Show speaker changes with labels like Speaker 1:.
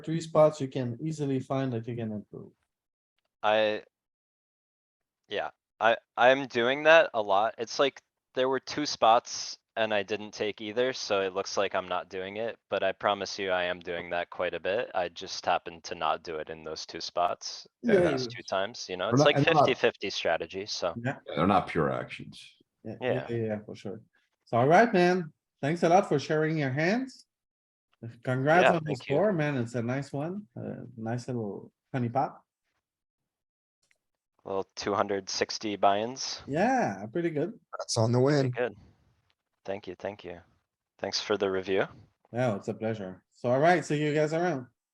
Speaker 1: three spots you can easily find that you can improve.
Speaker 2: I. Yeah, I, I'm doing that a lot. It's like there were two spots and I didn't take either, so it looks like I'm not doing it, but I promise you I am doing that quite a bit. I just happened to not do it in those two spots,
Speaker 1: Yeah,
Speaker 2: in these
Speaker 1: yeah.
Speaker 2: two times, you know,
Speaker 3: We're
Speaker 2: it's
Speaker 3: not-
Speaker 2: like
Speaker 3: I'm not-
Speaker 2: 50-50 strategy, so.
Speaker 3: Yeah, They're not pure actions.
Speaker 1: Yeah,
Speaker 2: Yeah.
Speaker 1: yeah, yeah, for sure. So alright, man, thanks a lot for sharing your hands. Congrats
Speaker 2: Yeah,
Speaker 1: on the
Speaker 2: thank you.
Speaker 1: score, man. It's a nice one, uh, nice little honey pot.
Speaker 2: Little two hundred sixty buy-ins,
Speaker 1: Yeah, pretty good.
Speaker 4: That's on the
Speaker 2: pretty
Speaker 4: win.
Speaker 2: good. Thank you, thank you. Thanks for the review.
Speaker 1: Yeah, it's a pleasure. So alright, see you guys around.